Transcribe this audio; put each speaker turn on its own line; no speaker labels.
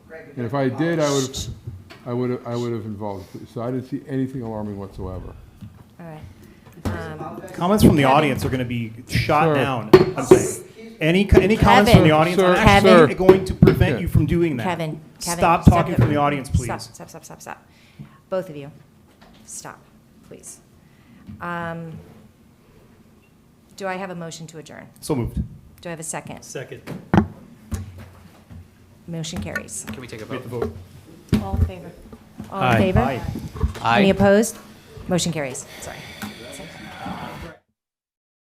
regular.
And if I did, I would,
policy.
I would, I would have involved, so I didn't see anything alarming whatsoever.
All right. Um,
I'll bet-
Comments from the audience are going to be shot
Sir.
down. I'm saying. Any, co- any comments from
Kevin.
the audience
Sir,
are actually
Kevin.
going to prevent you from doing that.
Kevin, Kevin.
Stop talking
it.
from the audience,
Stop,
please.
stop, stop, stop, stop. Both of you, stop, please. Um, Do I have a motion to adjourn?
So moved.
Do I have a second?
Second.
Motion carries.
Can we take a vote?
All in favor? All
Aye.
in favor?
Aye.
Any opposed? Motion carries, sorry.